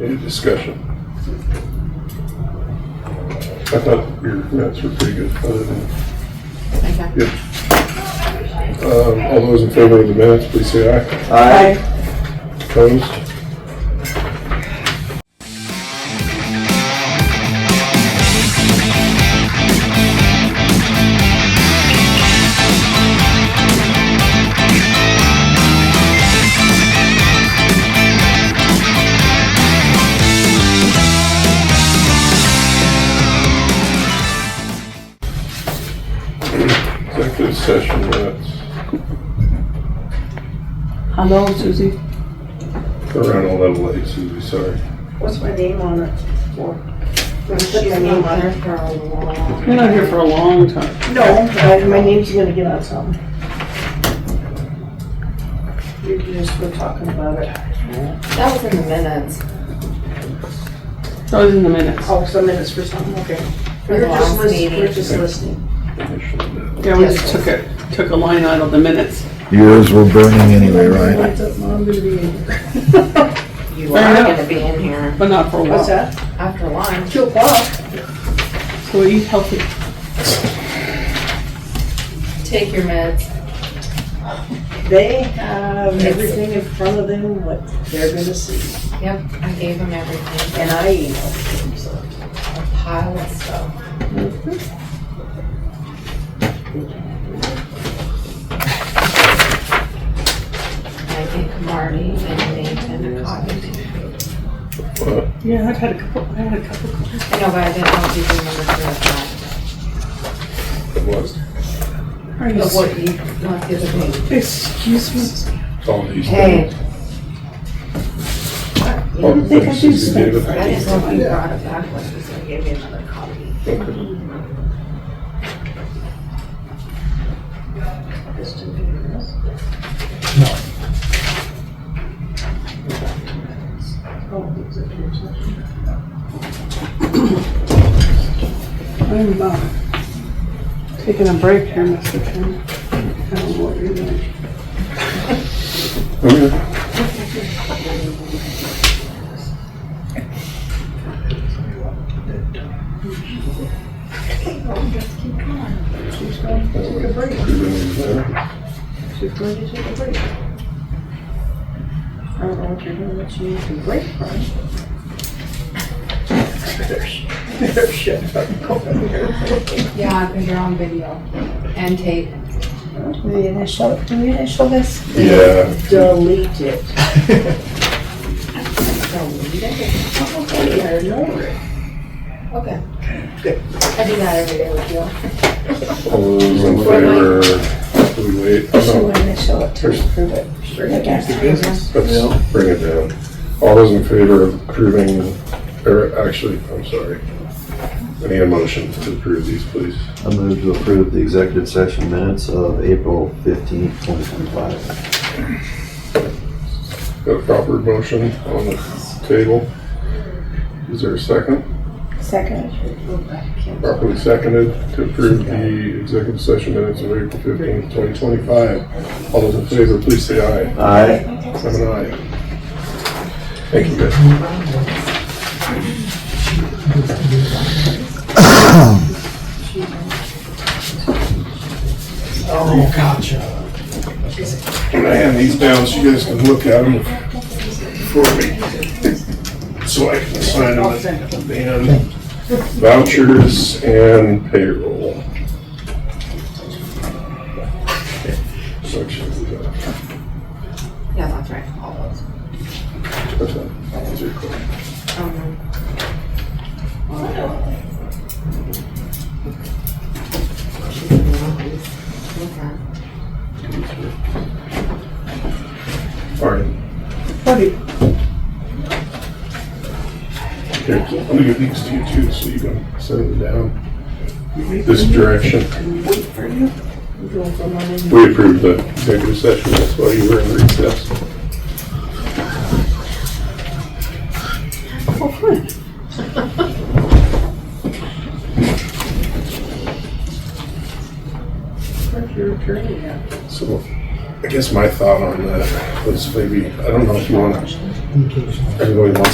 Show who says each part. Speaker 1: Any discussion? I thought your notes were pretty good, other than,
Speaker 2: Okay.
Speaker 1: yeah. Um, all those in favor of the minutes, please say aye.
Speaker 3: Aye.
Speaker 1: Opposed? Executive session minutes,
Speaker 3: Hello, Susie.
Speaker 1: around a little late, Susie, sorry.
Speaker 4: What's my name on it for? Put my name on it for a while.
Speaker 3: You're not here for a long time.
Speaker 4: No, but my name's gonna get on something. You just were talking about it.
Speaker 2: That was in the minutes.
Speaker 3: That was in the minutes.
Speaker 4: Oh, some minutes for something, okay.
Speaker 2: For
Speaker 4: We're
Speaker 2: the
Speaker 4: just
Speaker 2: last
Speaker 4: listening,
Speaker 2: meeting.
Speaker 4: we're just listening.
Speaker 1: Initially,
Speaker 3: Yeah, we just took a, took a line out of the minutes.
Speaker 5: Yours were burning anyway, right?
Speaker 2: You
Speaker 3: Fair
Speaker 2: are
Speaker 3: enough.
Speaker 2: gonna be in here
Speaker 3: But not for a
Speaker 4: What's
Speaker 3: while.
Speaker 4: that?
Speaker 2: after lunch.
Speaker 4: Two o'clock.
Speaker 3: So eat healthy.
Speaker 2: Take your meds.
Speaker 4: They have everything in front of them, what they're gonna see,
Speaker 2: Yep, I gave him everything.
Speaker 4: and I emailed them, so.
Speaker 2: A pile of stuff. I think Marty and Nathan a copy.
Speaker 1: uh,
Speaker 3: Yeah, I've had a couple, I had a couple.
Speaker 2: I know, but I didn't know if you remember that.
Speaker 1: It was,
Speaker 3: Are you
Speaker 2: But
Speaker 3: s-
Speaker 2: what you, not the other day.
Speaker 3: Excuse me.
Speaker 1: it's all these
Speaker 2: Hey,
Speaker 1: things. Oh,
Speaker 3: don't think I do
Speaker 1: Susie gave
Speaker 3: Oh.
Speaker 1: it.
Speaker 2: I didn't know if you brought it back, like you said, gave me another copy.
Speaker 1: Okay.
Speaker 3: I'm, uh, taking a break here, Mr. Chairman. I don't know what you're doing.
Speaker 1: Okay. That
Speaker 4: She's going to take a break. I don't know what you're doing, but she needs a break from. There's shit over here.
Speaker 2: Yeah, because you're on video and tape.
Speaker 4: We initial, do we initial this?
Speaker 1: way- Yeah,
Speaker 4: Delete it.
Speaker 2: Delete it.
Speaker 4: Okay, I know it.
Speaker 2: Okay. I do that every day with you.
Speaker 1: all those in favor, do we wait?
Speaker 4: She
Speaker 1: Oh,
Speaker 4: would initial it to
Speaker 1: There's-
Speaker 4: approve it.
Speaker 1: no. Let's bring it down. All those in favor of approving, or actually, I'm sorry. I need a motion to approve these, please.
Speaker 6: I move to approve the executive session minutes of April fifteenth, twenty twenty-five.
Speaker 1: Got a proper motion on the table. Is there a second?
Speaker 4: Second.
Speaker 1: Properly seconded to approve the executive session minutes of April fifteenth, twenty twenty-five. All those in favor, please say aye.
Speaker 6: Aye.
Speaker 1: I'm an aye. Thank you, guys.
Speaker 4: Oh,
Speaker 1: Can I hand these down so you guys can look at them for me? So I can sign them at the end. Vouchers and payroll. Section.
Speaker 2: Yeah, that's right. All those.
Speaker 1: That's fine. Those are cool.
Speaker 2: Um, okay.
Speaker 1: All right.
Speaker 3: Buddy,
Speaker 1: Here, I'm gonna give these to you too, so you can set them down this direction. We approved the executive session, that's why you were in recess.
Speaker 4: Your attorney, yeah.
Speaker 1: So, I guess my thought on that was maybe, I don't know if you wanna, everybody wants